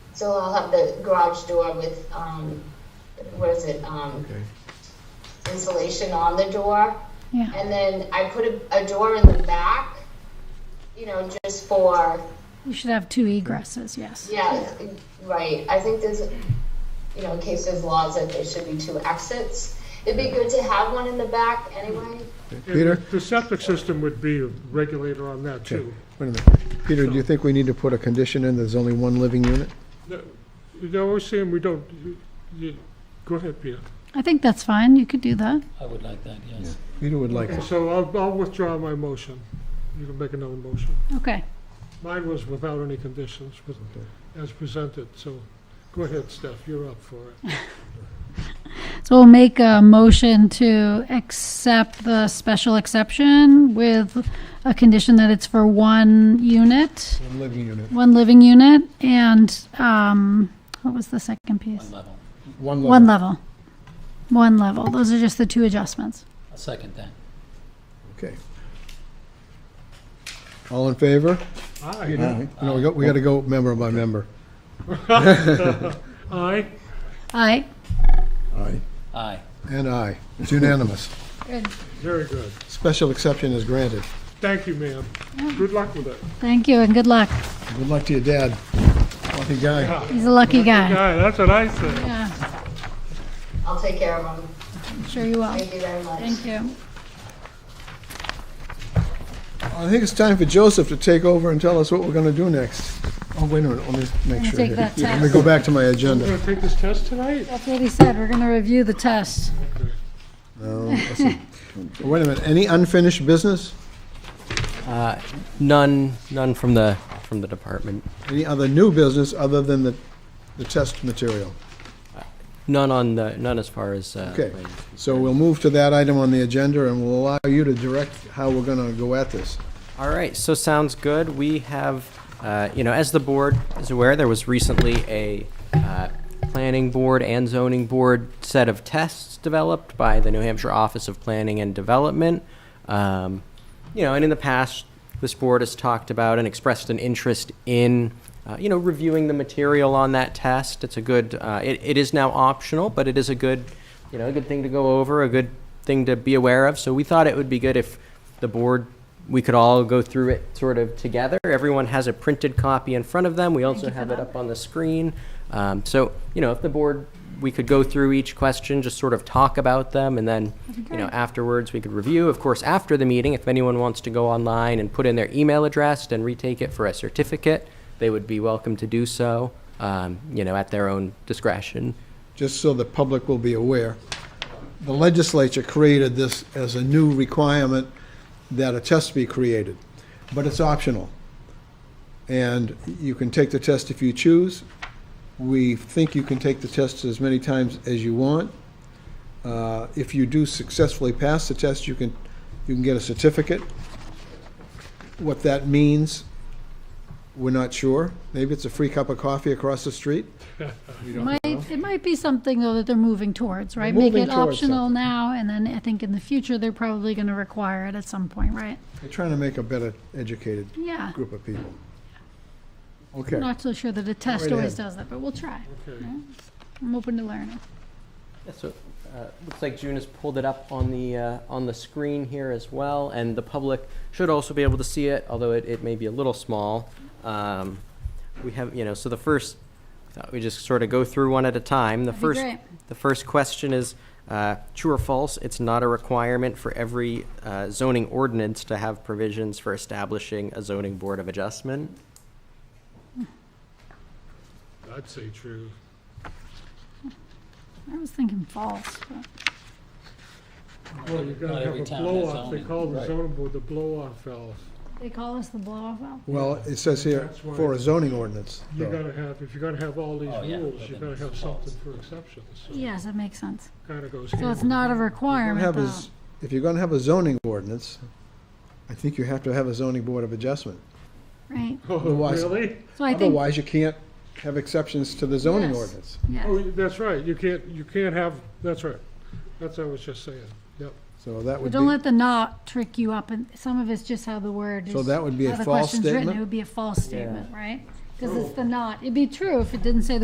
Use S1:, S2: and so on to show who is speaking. S1: So I'll have the garage door with, um, what is it, um,
S2: Okay.
S1: insulation on the door.
S3: Yeah.
S1: And then I put a, a door in the back, you know, just for,
S3: You should have two egresses, yes.
S1: yeah, right. I think there's, you know, in case there's laws that there should be two exits. It'd be good to have one in the back anyway.
S2: Peter?
S4: The septic system would be a regulator on that,
S2: Okay,
S4: too.
S2: wait a minute. Peter, do you think we need to put a condition in, there's only one living unit?
S4: They're always saying we don't, you- you- go ahead, Peter.
S3: I think that's fine, you could do that.
S5: I would like that, yes.
S2: Peter would like it.
S4: So I'll, I'll withdraw my motion. You can make another motion.
S3: Okay.
S4: Mine was without any conditions, with- as presented, so go ahead, Steph, you're up for it.
S3: So we'll make a motion to accept the special exception with a condition that it's for one unit,
S2: One living unit.
S3: one living unit, and, um, what was the second
S5: One
S3: piece?
S5: level.
S2: One
S3: One
S2: level.
S3: level. One level. Those are just the two adjustments.
S5: I'll second that.
S2: Okay. All in favor?
S4: Aye.
S2: No, we got, we gotta go member by member.
S4: Aye?
S3: Aye.
S2: Aye.
S5: Aye.
S2: And aye. It's unanimous.
S3: Good.
S4: Very good.
S2: Special exception is granted.
S4: Thank you, ma'am. Good luck with it.
S3: Thank you and good luck.
S2: Good luck to your dad. Lucky guy.
S3: He's a lucky guy.
S4: Yeah, that's what I said.
S3: Yeah,
S1: I'll take care of them.
S3: sure you will.
S1: Thank you very much.
S3: Thank you.
S2: I think it's time for Joseph to take over and tell us what we're gonna do next. Oh, wait a minute, let me make
S3: me
S2: sure.
S3: take
S2: here.
S3: that
S2: Let me
S3: test.
S2: go back to my
S4: You
S2: agenda.
S4: gonna take this test tonight?
S3: That's what he said. We're going to review the test.
S2: No, let's see. Wait a minute, any unfinished business?
S6: Uh, None, none from the, from the department.
S2: Any other new business other than the, the test material?
S6: None on the, none as far as. uh,
S2: Okay.
S6: planning is
S2: So
S6: concerned.
S2: we'll move to that item on the agenda, and we'll allow you to direct how we're gonna go at this.
S6: All right, so sounds good. We have, uh, you know, as the board is aware, there was recently a uh, planning board and zoning board set of tests developed by the New Hampshire Office of Planning and Development. Um, You know, and in the past, this board has talked about and expressed an interest in, uh, you know, reviewing the material on that test. It's a good, uh, it it is now optional, but it is a good, you know, a good thing to go over, a good thing to be aware of. So we thought it would be good if the board we could all go through it sort of together. Everyone has a printed copy in front of them. We also have it up on the screen. Um, so, you know, if the board, we could go through each question, just sort of talk about them, and then, you know, afterwards we could review. Of course, after the meeting, if anyone wants to go online and put in their email address and retake it for a certificate, they would be welcome to do so, um, you know, at their own discretion.
S2: just so the public will be aware, the legislature created this as a new requirement that a test be created, but it's optional. And you can take the test if you choose. We think you can take the test as many times as you want. Uh, If you do successfully pass the test, you can, you can get a certificate. What that means, we're not sure. Maybe it's a free cup of coffee across the street.
S3: Might, it might be something though that they're moving towards, right?
S2: They're
S3: Make it
S2: moving towards
S3: optional
S2: something.
S3: now and then I think in the future, they're probably going to require it at some point, right?
S2: They're trying to make a better educated
S3: Yeah.
S2: group of people.
S3: I'm
S2: Okay,
S3: Not so sure that a test
S2: Right
S3: always
S2: ahead.
S3: does that, but we'll try.
S4: Okay.
S3: I'm open to learning.
S6: Yeah, so uh, looks like June has pulled it up on the uh, on the screen here as well, and the public should also be able to see it, although it, it may be a little small. Um, we have, you know, so the first thought we just sort of go through one at a time. The
S3: That'd be
S6: first
S3: great.
S6: the first question is uh, true or false? It's not a requirement for every uh, zoning ordinance to have provisions for establishing a zoning board of adjustment.
S4: I'd say true.
S3: I was thinking false, but
S4: Well, you're
S5: Not
S4: gonna have
S5: every
S4: a
S5: town has
S4: blow-off, they
S5: zoning.
S4: call the
S2: Right.
S4: zoning board the blow-off valve.
S3: they call us the blow-off valve.
S2: well, it says here,
S4: That's why-
S2: for a zoning ordinance.
S4: You're
S2: though.
S4: gonna have, if you're gonna have all these
S5: Oh, yeah,
S4: rules,
S5: but
S4: you're
S5: then
S4: gonna
S5: it's
S4: have
S5: false.
S4: something for exceptions, so
S3: Yes, that makes sense.
S4: kinda goes
S3: So it's
S4: hand in
S3: not a
S2: What
S3: requirement
S2: happens-
S3: though.
S2: If you're gonna have a zoning ordinance, I think you have to have a zoning board of adjustment.
S3: Right.
S4: Oh,
S2: Otherwise-
S4: really?
S3: So I think,
S2: Otherwise, you can't have exceptions to the zoning
S3: Yes.
S2: ordinance.
S3: yeah,
S4: Oh, that's right, you can't, you can't have, that's right, that's what I was just saying, yep.
S2: So that
S3: but
S2: would
S3: don't
S2: be,
S3: let the not trick you up. And some of it's just how the word is.
S2: so that would be
S3: how
S2: a
S3: the
S2: false
S3: question's written. It
S2: statement?
S3: would be a false statement, right? because it's the not. It'd be true if it didn't say the